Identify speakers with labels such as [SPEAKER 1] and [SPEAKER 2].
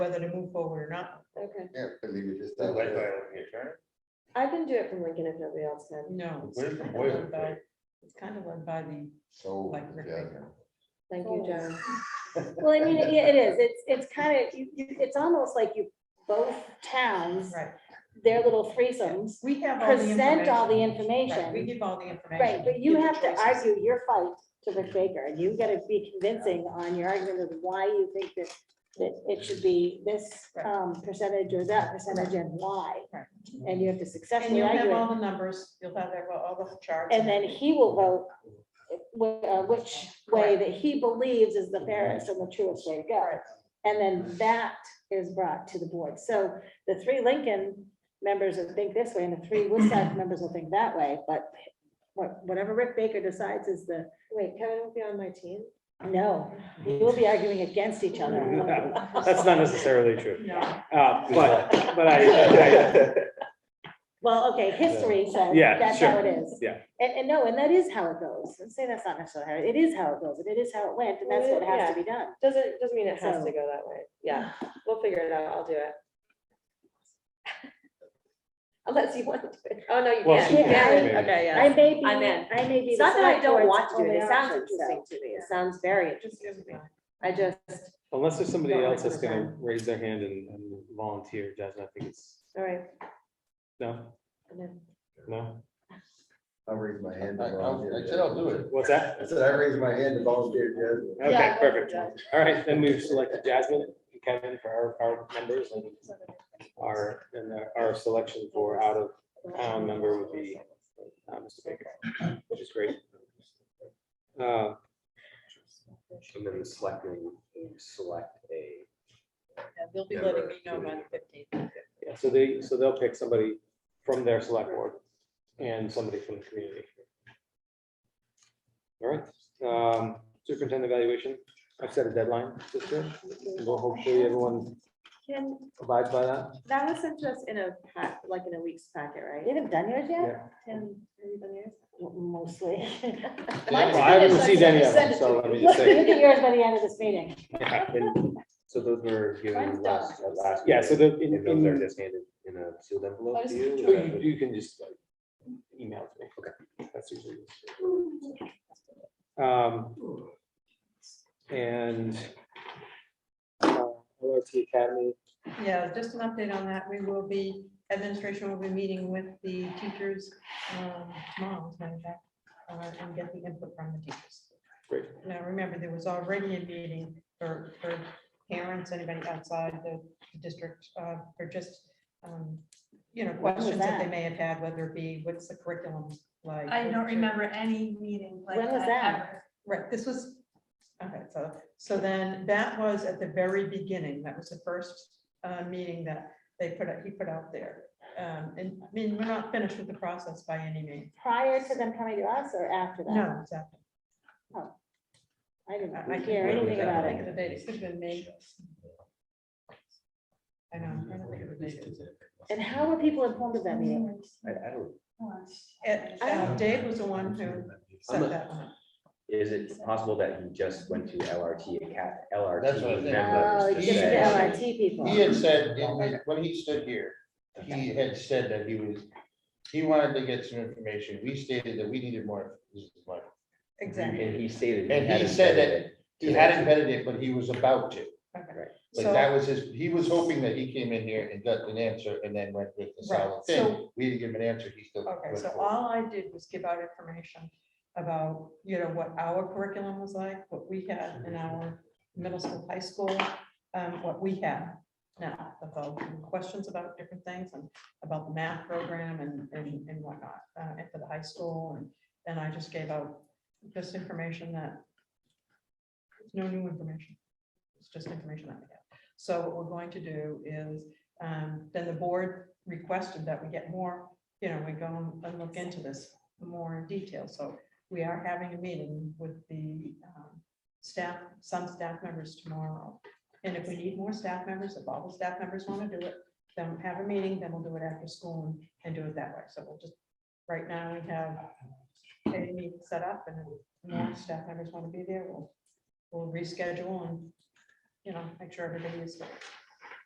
[SPEAKER 1] whether to move forward or not.
[SPEAKER 2] Okay,
[SPEAKER 3] Yeah, but leave it just.
[SPEAKER 4] Led
[SPEAKER 3] that
[SPEAKER 4] by
[SPEAKER 3] way.
[SPEAKER 4] the attorney?
[SPEAKER 2] I can do it from Lincoln if nobody else can.
[SPEAKER 1] No.
[SPEAKER 4] Where's the
[SPEAKER 1] It's
[SPEAKER 4] boiler
[SPEAKER 1] led by- It's kind of led by the,
[SPEAKER 3] So,
[SPEAKER 1] like, Rick
[SPEAKER 3] yeah,
[SPEAKER 1] Baker.
[SPEAKER 2] Thank you,
[SPEAKER 1] Oh.
[SPEAKER 2] John. Well, I mean, it it is, it's, it's kind of, you, you, it's almost like you, both towns,
[SPEAKER 1] right.
[SPEAKER 2] their little threesomes,
[SPEAKER 1] We have all the
[SPEAKER 2] present all the
[SPEAKER 1] information. Right, We
[SPEAKER 2] information.
[SPEAKER 1] give all the information.
[SPEAKER 2] Right, but you
[SPEAKER 1] give the
[SPEAKER 2] have to
[SPEAKER 1] choices.
[SPEAKER 2] argue your fight to Rick Baker, and you gotta be convincing on your argument of why you think that, that it should be this
[SPEAKER 1] Right.
[SPEAKER 2] um, percentage or that percentage and why.
[SPEAKER 1] Right.
[SPEAKER 2] And you have to
[SPEAKER 1] And
[SPEAKER 2] successfully
[SPEAKER 1] you'll have
[SPEAKER 2] argue it,
[SPEAKER 1] all the numbers, you'll have that- all the charts.
[SPEAKER 2] and then he will vote wh- uh, which way that he believes is the fairest and the truest way to go.
[SPEAKER 1] Right.
[SPEAKER 2] And then that is brought to the board. So the three Lincoln members will think this way and the three Woodstock members will think that way, but what- whatever Rick Baker decides is the. Wait, Kevin will be on my team? No, you will be arguing against each other.
[SPEAKER 5] That's not necessarily true,
[SPEAKER 1] No,
[SPEAKER 5] uh, but, but I, I-
[SPEAKER 2] Well, okay, history says
[SPEAKER 5] Yeah,
[SPEAKER 2] that's how
[SPEAKER 5] sure.
[SPEAKER 2] it is.
[SPEAKER 5] Yeah.
[SPEAKER 2] And, and no, and that is how it goes. And say that's not necessarily how, it is how it goes, and it is how it went, and that's what has to be done.
[SPEAKER 6] Doesn't, doesn't mean it has
[SPEAKER 2] So-
[SPEAKER 6] to go that way. Yeah, we'll figure it out. I'll do it. Unless you want to. Oh, no, you
[SPEAKER 5] Well,
[SPEAKER 6] can't.
[SPEAKER 2] she
[SPEAKER 6] You
[SPEAKER 2] can,
[SPEAKER 6] can't.
[SPEAKER 5] maybe.
[SPEAKER 6] Okay,
[SPEAKER 2] I
[SPEAKER 6] yeah.
[SPEAKER 2] may be,
[SPEAKER 6] I'm in.
[SPEAKER 2] I may be.
[SPEAKER 6] It's
[SPEAKER 2] the
[SPEAKER 6] not that I
[SPEAKER 2] select
[SPEAKER 6] don't
[SPEAKER 2] board's
[SPEAKER 6] want to do it.
[SPEAKER 2] only
[SPEAKER 6] It sounds
[SPEAKER 2] option, so-
[SPEAKER 6] interesting to me. It sounds very interesting to me. I just,
[SPEAKER 5] unless there's somebody
[SPEAKER 6] Not
[SPEAKER 5] else that's gonna
[SPEAKER 6] 100%.
[SPEAKER 5] raise their hand and and volunteer, Jasmine, I think it's,
[SPEAKER 6] all right.
[SPEAKER 5] no,
[SPEAKER 6] I'm in.
[SPEAKER 5] no,
[SPEAKER 3] I'll raise my hand.
[SPEAKER 4] I-
[SPEAKER 3] to
[SPEAKER 4] I'll-
[SPEAKER 3] volunteer.
[SPEAKER 4] I said I'll do it.
[SPEAKER 5] what's that?
[SPEAKER 3] I said I raised my hand to volunteer, Jasmine.
[SPEAKER 5] Okay, perfect, all right, then we've selected Jasmine and Kevin for our, our members and our, and our selection for out of town member would be uh, Mr. Baker, which is great. Uh,
[SPEAKER 7] And then the selectmen select a.
[SPEAKER 1] They'll be letting me know by the fifteenth.
[SPEAKER 5] Yeah, so they, so they'll pick somebody from their select board and somebody from the community. All right, um, superintendent evaluation, I've set a deadline this year, and we'll hopefully everyone
[SPEAKER 6] Can,
[SPEAKER 5] abides by that.
[SPEAKER 6] that was sent to us in a pack, like in a week's packet,
[SPEAKER 2] You
[SPEAKER 6] right?
[SPEAKER 2] haven't done yours yet?
[SPEAKER 5] Yeah.
[SPEAKER 6] Tim, have you done yours?
[SPEAKER 2] Mostly.
[SPEAKER 5] Well, I haven't received any of them, so let me
[SPEAKER 2] Look
[SPEAKER 5] just say.
[SPEAKER 2] at yours by the end of this meeting.
[SPEAKER 7] Yeah, and So those were given last, at last.
[SPEAKER 5] Yeah, so
[SPEAKER 7] meeting,
[SPEAKER 5] the, in,
[SPEAKER 7] And those are
[SPEAKER 5] in,
[SPEAKER 7] just handed in a sealed envelope to you.
[SPEAKER 5] you, you can just like, email it to me. Okay. That's usually. Um, and uh, LRT Academy,
[SPEAKER 1] Yeah, just an update on that. We will be, administration will be meeting with the teachers um, tomorrow, as a matter of fact, uh, and get the input from the teachers.
[SPEAKER 5] great.
[SPEAKER 1] Now, remember, there was already a meeting for, for parents, anybody outside the district, uh, for just, um, you know,
[SPEAKER 2] When was
[SPEAKER 1] questions that they
[SPEAKER 2] that?
[SPEAKER 1] may have had, whether it be, what's the curriculum like?
[SPEAKER 8] I don't
[SPEAKER 1] what's your-
[SPEAKER 8] remember any meeting like
[SPEAKER 2] When was that?
[SPEAKER 8] that ever.
[SPEAKER 1] Right, this was, okay, so, so then that was at the very beginning, that was the first uh, meeting that they put, out. he put out there. Um, And I mean, we're not finished with the process by any means.
[SPEAKER 2] Prior to them coming to us or after that?
[SPEAKER 1] No, exactly.
[SPEAKER 2] I
[SPEAKER 1] I I
[SPEAKER 2] didn't
[SPEAKER 1] can't
[SPEAKER 2] hear anything about
[SPEAKER 1] think
[SPEAKER 2] it.
[SPEAKER 1] of the date, it could have been May. I know, I'm trying to think of the date.
[SPEAKER 2] And how were people informed of that meeting?
[SPEAKER 7] I, I don't,
[SPEAKER 1] And, uh, Dave was the one who set that one up.
[SPEAKER 7] is it possible that he just went to LRT, Acad-
[SPEAKER 4] That's what I
[SPEAKER 7] LRT
[SPEAKER 4] think.
[SPEAKER 2] Oh,
[SPEAKER 7] members
[SPEAKER 2] it's
[SPEAKER 7] to
[SPEAKER 2] just the
[SPEAKER 7] say-
[SPEAKER 2] LRT people.
[SPEAKER 4] He had said, in the- when he stood here, he had said that he was, he wanted to get some information. We stated that we needed more. This is my-
[SPEAKER 1] Exactly.
[SPEAKER 7] And he stated.
[SPEAKER 4] And he
[SPEAKER 7] hadn't
[SPEAKER 4] said
[SPEAKER 7] vetted
[SPEAKER 4] that
[SPEAKER 7] it.
[SPEAKER 4] He hadn't vetted it, but he was about to.
[SPEAKER 1] Okay.
[SPEAKER 7] Right.
[SPEAKER 4] But
[SPEAKER 1] So-
[SPEAKER 4] that was his, he was hoping that he came in here and got an answer and then went with the
[SPEAKER 1] Right,
[SPEAKER 4] solid thing.
[SPEAKER 1] so-
[SPEAKER 4] We didn't give him an answer. He still.
[SPEAKER 1] Okay,
[SPEAKER 4] went
[SPEAKER 1] so
[SPEAKER 4] forward.
[SPEAKER 1] all I did was give out information about, you know, what our curriculum was like, what we had in our middle school, high school, um, what we had now, about questions about different things and about the math program and, and, and whatnot, uh, and for the high school, and then I just gave out just information that it's no new information. It's just information that we have. So what we're going to do is, um, then the board requested that we get more you know, we go and look into this more in detail. So we are having a meeting with the um, staff, some staff members tomorrow. And if we need more staff members, if all the staff members want to do it, then have a meeting, then we'll do it after school and- and do it that way. So we'll just, right now, we have a meeting set up and if more staff members want to be there, we'll, we'll reschedule and, you know, make sure everybody is there.